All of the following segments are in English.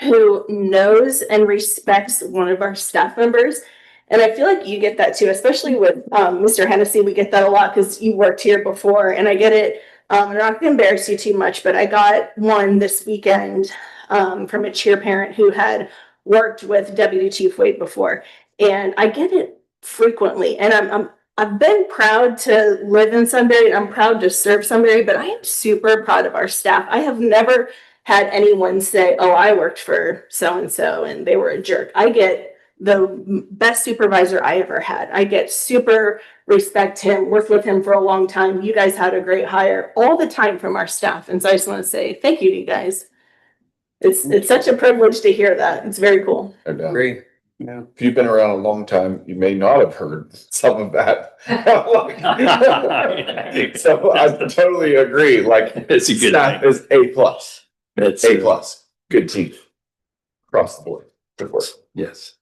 who knows and respects one of our staff members. And I feel like you get that too, especially with um, Mr. Hennessy. We get that a lot because you worked here before, and I get it. Um, I'm not going to embarrass you too much, but I got one this weekend um, from a cheer parent who had worked with Deputy Chief Wade before, and I get it frequently. And I'm, I'm I've been proud to live in Sunbury, and I'm proud to serve Sunbury, but I am super proud of our staff. I have never had anyone say, "Oh, I worked for so and so and they were a jerk." I get the m- best supervisor I ever had. I get super respect him, worked with him for a long time. You guys had a great hire all the time from our staff, and so I just want to say thank you to you guys. It's it's such a privilege to hear that. It's very cool. No doubt. Agree. Yeah. uh, If you've been around a long time, you may not have heard some of that. So I totally agree, like It's a good staff thing. is A plus, That's A uh, plus, good team. Across the board, good work. yes.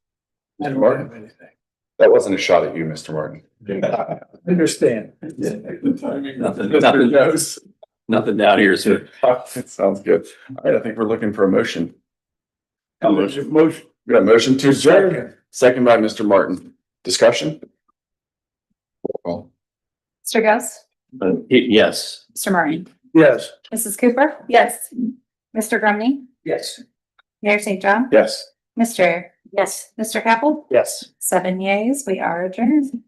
I don't Martin? have anything. That wasn't a shot at you, Mr. Martin. Understand. Nothing, nothing, knows. nothing down here, sir. Sounds good. All right, I think we're looking for a motion. Motion. Motion. We got a motion to adjourn, second by Mr. Martin. Discussion? Roll Mr. Ghost, Uh, y- Yes. Mr. Murray, Yes. Mrs. Cooper, Yes. Mr. Grumney, Yes. Mayor St. call. John, Yes. Mr. Yes. Mr. Capel, Yes. seven yeas, we are adjourned.